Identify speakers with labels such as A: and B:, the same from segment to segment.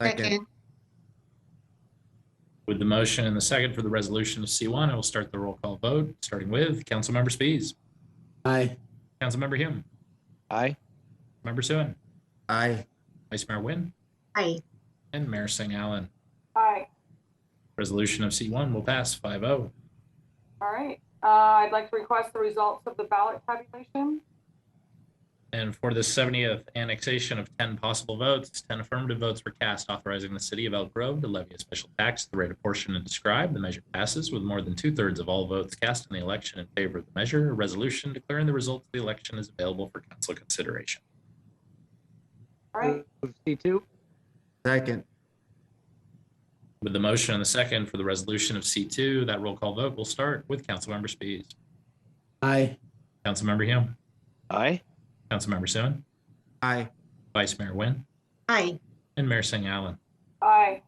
A: Second.
B: With the motion and the second for the resolution of C1, I will start the roll call vote, starting with Councilmember Spies,
C: Aye.
B: Councilmember Hume,
D: Aye.
B: Member Suen,
C: Aye.
B: Vice Mayor Wynne,
A: Aye.
B: and Mayor Singh Allen.
E: Aye.
B: Resolution of C1 will pass oh. 5-0.
E: All right. Uh, I'd like to request the results of the ballot tabulation.
B: And for the 70th annexation of 10 possible votes, 10 affirmative votes were cast authorizing the city of Elk Grove to levy a special tax at the rate of portion and described. The measure passes with more than two-thirds of all votes cast in the election in favor of the measure. A resolution declaring the results of the election is available for council consideration.
E: All right.
D: Move C2.
C: Second.
B: With the motion and the second for the resolution of C2, that roll call vote will start with Councilmember Spies,
C: Aye.
B: Councilmember Hume,
D: Aye.
B: Councilmember Suen,
C: Aye.
B: Vice Mayor Wynne,
A: Aye.
B: and Mayor Singh Allen.
E: Aye.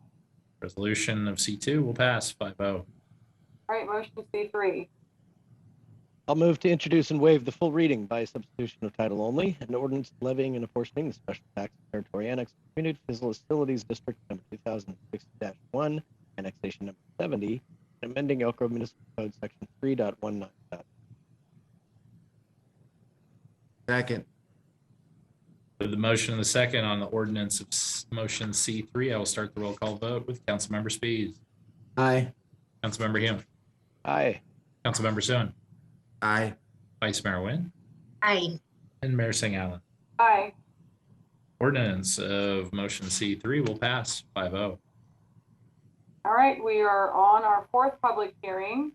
B: Resolution of C2 will pass oh. 5-0.
E: All right. Motion C3.
D: I'll move to introduce and waive the full reading by substitution of title only, an ordinance levying and apportioning the special tax territory annex community facilities district number 2006-1, annexation number 70, and amending Elk Grove Municipal Code section 3.19.
C: Second.
B: With the motion and the second on the ordinance of s- motion C3, I will start the roll call vote with Councilmember Spies,
C: Aye.
B: Councilmember Hume,
D: Aye.
B: Councilmember Suen,
C: Aye.
B: Vice Mayor Wynne,
A: Aye.
B: and Mayor Singh Allen.
E: Aye.
B: Ordinance of motion C3 will pass oh. 5-0.
E: All right. We are on our fourth public hearing.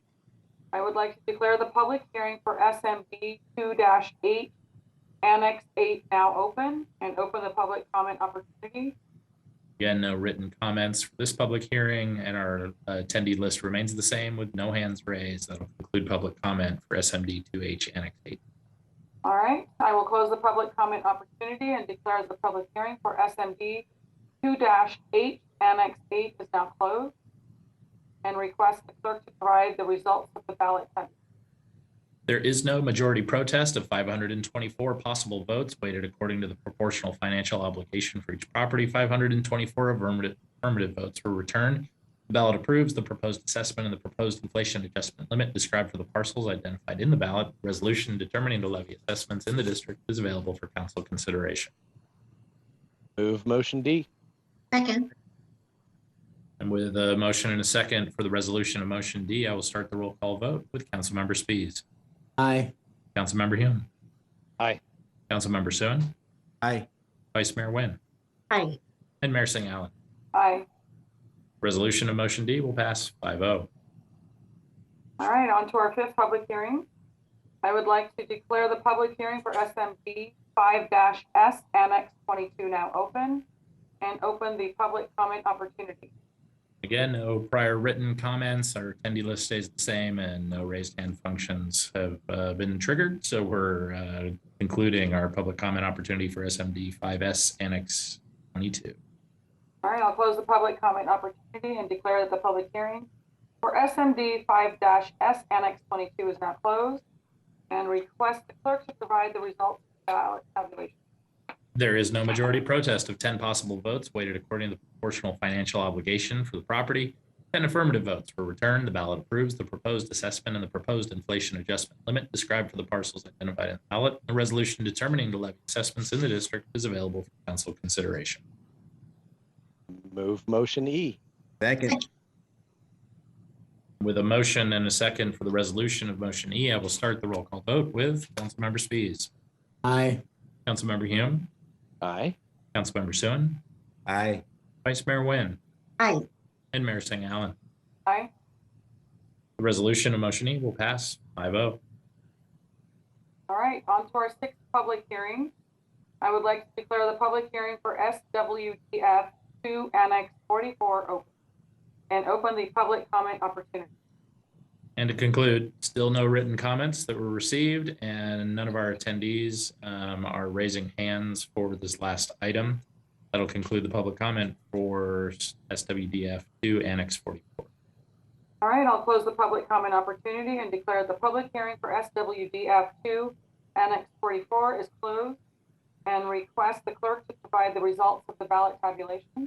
E: I would like to declare the public hearing for SMB 2-8, Annex 8 now open and open the public comment opportunity.
B: Again, no written comments for this public hearing and our uh, attendee list remains the same with no hands raised. That'll conclude public comment for SMD 2H Annex 8.
E: All right, I will close the public comment opportunity and declare the public hearing for SMD two eight, Annex eight is now closed. And request the clerk to provide the results of the ballot. tab-
B: There is no majority protest of 524 possible votes weighted according to the proportional financial obligation for each property. 524 affirmative affirmative votes were returned. The ballot approves the proposed assessment and the proposed inflation adjustment limit described for the parcels identified in the ballot. Resolution determining the levy assessments in the district is available for council consideration.
D: Move motion D.
A: Second.
B: And with a motion and a second for the resolution of motion D, I will start the roll call vote with Councilmember Spies,
C: Aye.
B: Councilmember Hume.
D: Aye.
B: Councilmember Suen,
C: Aye.
B: Vice Mayor Wynne,
A: Aye.
B: and Mayor Singh Allen.
E: Aye.
B: Resolution of motion D will pass oh. 5-0.
E: All right, on to our fifth public hearing. I would like to declare the public hearing for SMD five S, Annex twenty-two now open and open the public comment opportunity.
B: Again, no prior written comments. Our attendee list stays the same and no raised hand functions have uh, been triggered. So we're uh, concluding our public comment opportunity for SMD 5S Annex 22.
E: All right, I'll close the public comment opportunity and declare that the public hearing for SMD five S Annex twenty-two is now closed. And request the clerk to provide the results of the ballot tabulation.
B: There is no majority protest of 10 possible votes weighted according to the proportional financial obligation for the property. 10 affirmative votes were returned. The ballot approves the proposed assessment and the proposed inflation adjustment limit described for the parcels identified in the ballot. The resolution determining the levy assessments in the district is available for council consideration.
D: Move motion E.
C: Second.
B: With a motion and a second for the resolution of motion E, I will start the roll call vote with Councilmember Spies,
C: Aye.
B: Councilmember Hume,
D: Aye.
B: Councilmember Suen,
C: Aye.
B: Vice Mayor Wynne,
A: Aye.
B: and Mayor Singh Allen.
E: Aye.
B: The resolution of motion E will pass oh. 5-0.
E: All right, on to our sixth public hearing. I would like to declare the public hearing for SWTF two Annex forty-four open. And open the public comment opportunity.
B: And to conclude, still no written comments that were received and none of our attendees um, are raising hands for this last item. That'll conclude the public comment for SWDF two Annex forty-four.
E: All right, I'll close the public comment opportunity and declare the public hearing for SWDF two, Annex forty-four is closed. And request the clerk to provide the results of the ballot tabulation.